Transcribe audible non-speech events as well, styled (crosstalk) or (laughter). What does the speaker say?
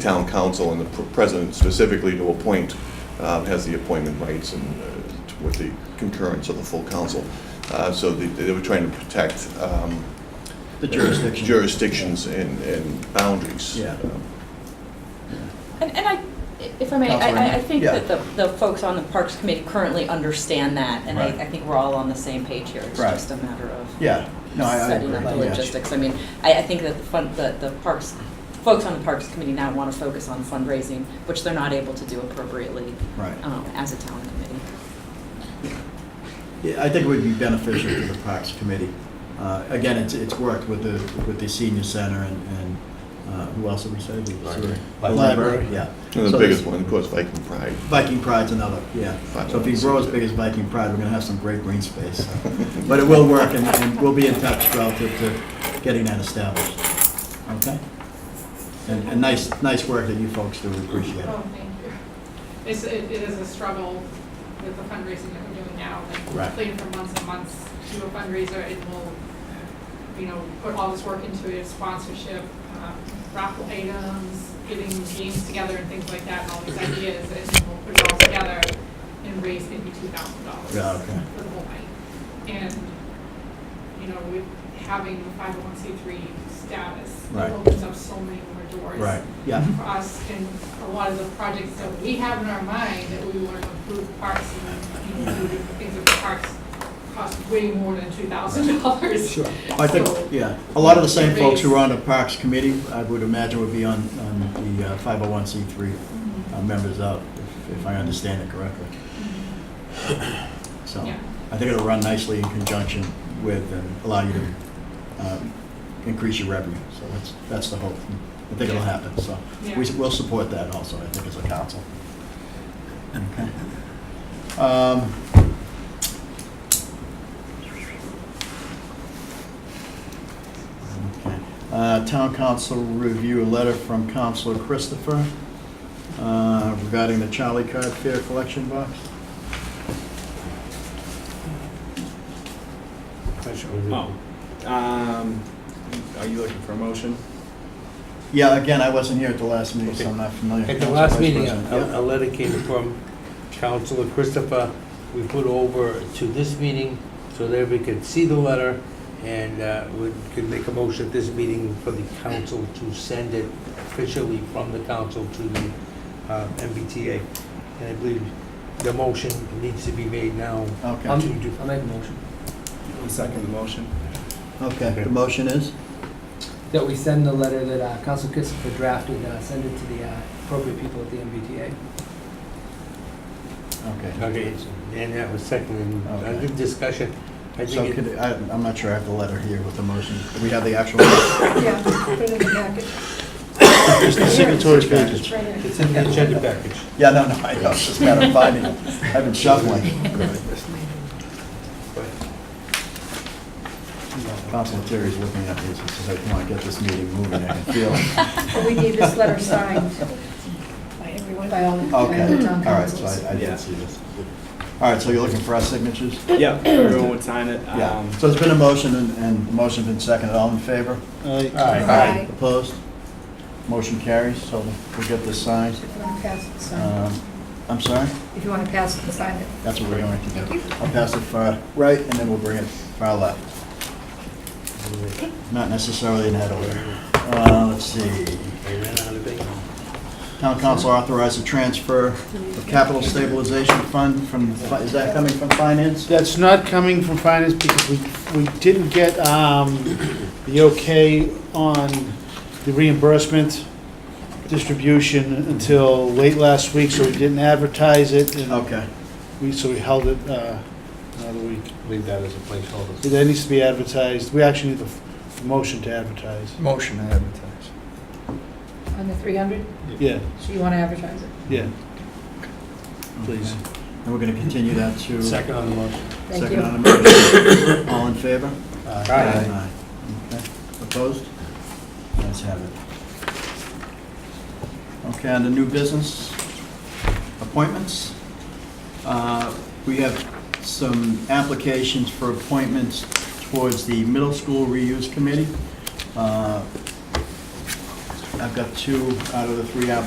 town council and the pr- president specifically to appoint, uh, has the appointment rights and uh, with the concurrence of the full council. Uh, So they- they were trying to protect um, The jurisdiction. jurisdictions and and boundaries. Yeah. Um, And, and I, if I may, I- I, I Councilwoman? think Yeah. that the, the folks on the Parks Committee currently understand that, and I, Right. I think we're all on the same page here. It's Right. just a matter of Yeah, no, I, I setting agree. up the Yeah. logistics. I mean, I, I think that the fun, the, the Parks, folks on the Parks Committee now want to focus on fundraising, which they're not able to do appropriately, Right. um, as a town committee. Yeah, I think it would be beneficial to the Parks Committee. Uh, Again, it's, it's worked with the, with the senior center and, and uh, who else did we say? The Library. The Library, yeah. And So the biggest there's- one, of course, Viking Pride. Viking Pride's another, yeah. Five So if you minutes. grow as big as Viking Pride, we're gonna have some great green space. so. But it will work and, and we'll be in touch relative to getting that established, okay? And, and nice, nice work that you folks do, we appreciate Oh, it. thank you. It's, it it is a struggle with the fundraising that we're doing now. Right. Like, plan for months and months to do a fundraiser, it will, you know, put all this work into it, sponsorship, um, raffle items, getting games together and things like that, and (clears throat) all these ideas, and we'll put it all together and raise maybe two thousand dollars Yeah, Oh, okay. for the whole night. And, you know, with having five oh one C three status, Right. it opens up so many more doors Right, yeah, for us and a lot of the projects that we have in our mind that we want to improve parks and you know, do different things with the parks cost way more than two thousand dollars. sure. I think, yeah, a lot of the same folks who are on the Parks Committee, I would imagine would be on, on the five oh one C three uh, members of, if- if I understand it correctly. mm-hmm. So, Yeah. I think it'll run nicely in conjunction with and allow you to um, increase your revenue. So that's, that's the hope. I think it'll happen, so we, Yeah. we'll support that also, I think, as a council. Okay. Um, okay. Uh, Town council review a letter from Counselor Christopher uh, regarding the Charlie Card Fair collection box. Oh, um, are you looking for a motion? Yeah, again, I wasn't here at the last meeting, so I'm not familiar. At the last Council Vice meeting, uh, President, a, a letter came from Counselor Christopher. We put over to this meeting so that we could see the letter and uh, we could make a motion at this meeting for the council to send it officially from the council to the uh, MBTA. And I believe the motion needs to be made now. yeah. Okay. to do- Um, I'll make a motion Second the motion. Okay, the motion is? that we send the letter that uh, Council Christopher drafted, uh, send it to the uh, appropriate people at the MBTA. Okay. Okay, it's- and that was second, and Okay. under discussion, I So think it- could, I, I'm not sure, I have the letter here with the motion. Do we have the actual? It's Yeah, put it in the packet. the signatory package. Right here. it's in the agenda package. Yeah, no, no, I know, it's just a matter of finding it. I've been shuffling. Council Terry's looking at this, it's just like, come on, get this meeting moving, I can feel it. But we need this letter signed by everyone, by all by all the Okay, all town right, so councils. I, I did see this. All right, so you're looking for our signatures? Yeah, everyone would sign it. Yeah, Um, so there's been a motion and, and the motion's been seconded, all in favor? Aye. Opposed? Motion carries, so we'll get this signed. If you want to pass it, sign Um, I'm sorry? it. If you want to pass it, sign it. That's what we're going to Thank do. you. I'll pass it far right, and then we'll bring it far left. Not necessarily in that order. Uh, Let's see. I ran out of it. Town council authorized the transfer of capital stabilization fund from, is that coming from finance? That's not coming from finance because we, we didn't get um, the okay on the reimbursement distribution until late last week, so we didn't advertise it, and Okay, we, so we held it uh, another week. Leave that as a placeholder. That needs to be advertised, we actually need the f- motion to advertise. Motion to advertise. On the 300, Yeah, so you want to advertise it. yeah. Please. and we're going to continue that to. Second on the motion. Thank second you. on the motion. All in favor? Aye. Okay. Opposed? Let's have it. Okay, on the new business appointments, uh, we have some applications for appointments towards the Middle School Reuse Committee. Uh, I've got two out of the three applicants